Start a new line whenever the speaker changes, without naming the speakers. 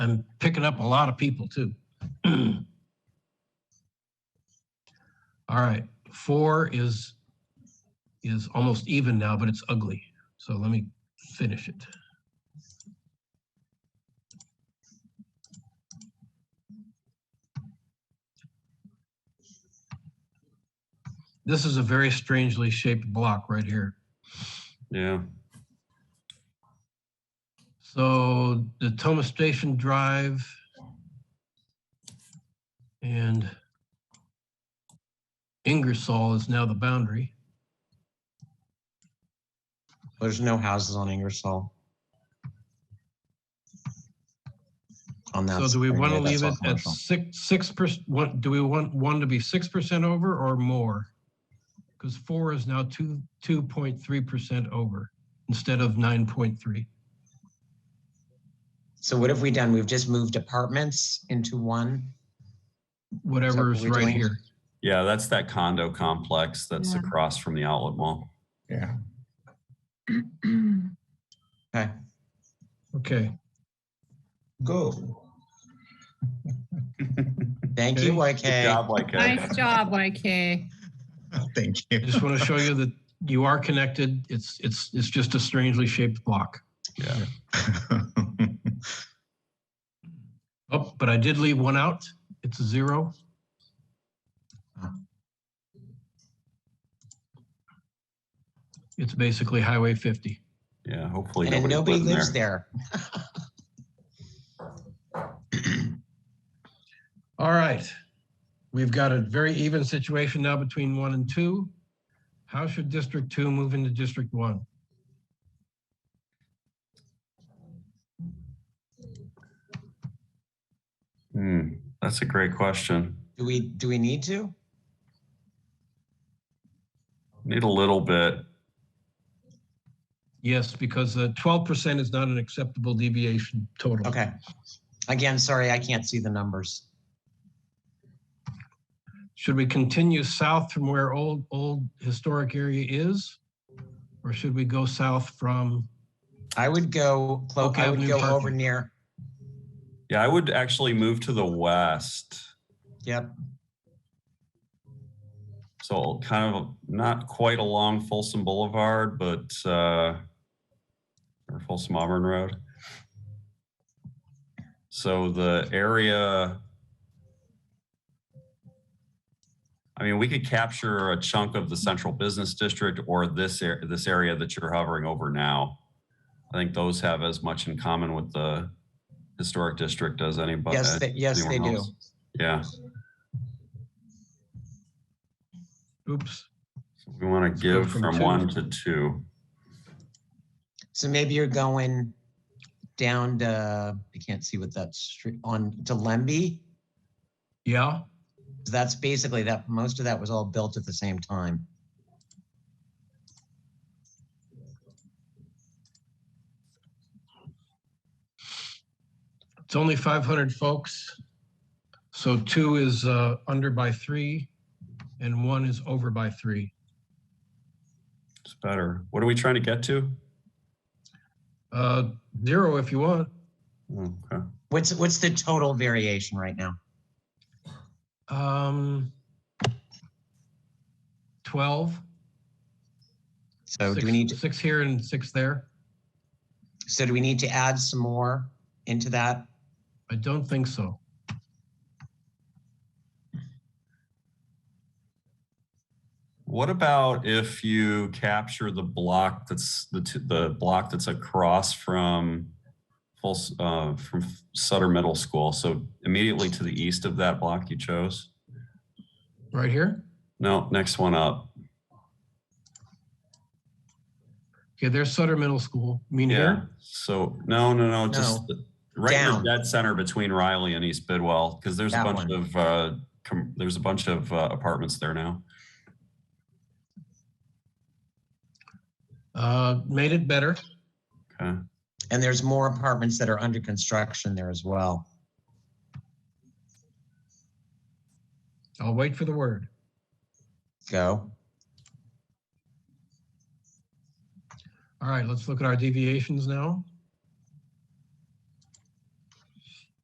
I'm picking up a lot of people too. All right, four is, is almost even now, but it's ugly. So let me finish it. This is a very strangely shaped block right here.
Yeah,
So the Thomas Station Drive and Ingersoll is now the boundary.
There's no houses on Ingersoll. On that.
So do we
side,
want to
yeah, that's
leave
all
it at
commercial.
six, six percent, what, do we want one to be six percent over or more? Because four is now two, two point three percent over instead of nine point three.
So what have we done? We've just moved apartments into one.
Whatever is
we're
right
doing?
here.
yeah, that's that condo complex that's
Yeah.
across from the outlet mall.
Yeah.
Mm.
Okay.
Okay,
Go.
Thank you,
Good
YK.
job, YK.
Nice job, YK.
Thank
I
you.
just want to show you that you are connected. It's, it's, it's just a strangely shaped block.
Yeah.
Oh, but I did leave one out. It's a zero. It's basically Highway 50.
Yeah, hopefully
And
nobody's
nobody
living there.
lives there.
All right. We've got a very even situation now between one and two. How should District 2 move into District 1?
Hmm, that's a great question.
Do we, do we need to?
Need a little bit.
Yes, because uh, 12% is not an acceptable deviation total.
Okay. Again, sorry, I can't see the numbers.
Should we continue south from where old, old historic area is? Or should we go south from,
I would go, clo-
Oak
I would
Avenue
go
parking.
over near,
Yeah, I would actually move to the west.
yep,
So kind of not quite along Folsom Boulevard, but uh, or Folsom Auburn Road. So the area, I mean, we could capture a chunk of the central business district or this area, this area that you're hovering over now. I think those have as much in common with the historic district as anybody.
yes, they- yes, they
anyone
do.
else. Yeah,
oops,
So we want to
go
give
from
from
two.
one to two.
So maybe you're going down to, I can't see what that street, on to Lemby.
yeah?
That's basically that, most of that was all built at the same time.
It's only 500 folks. So two is uh, under by three and one is over by three.
It's better. What are we trying to get to?
Uh, Zero if you want.
Okay.
What's, what's the total variation right now?
Um, 12.
So Oh, do
six-
we need, to?
Six here and six there.
so do we need to add some more into that?
I don't think so.
What about if you capture the block that's the t- the block that's across from full uh, from Sutter Middle School? So immediately to the east of that block you chose.
Right here?
No, next one up.
Okay, there's Sutter Middle School. You Mean
Yeah.
here?
So no, no, no, just the- right in
Down.
the dead center between Riley and East Bidwell, because there's a
That
bunch
one.
of uh, com- there's a bunch of uh, apartments there now.
Uh, Made it better.
Okay.
And there's more apartments that are under construction there as well.
I'll wait for the word.
Go.
All right, let's look at our deviations now.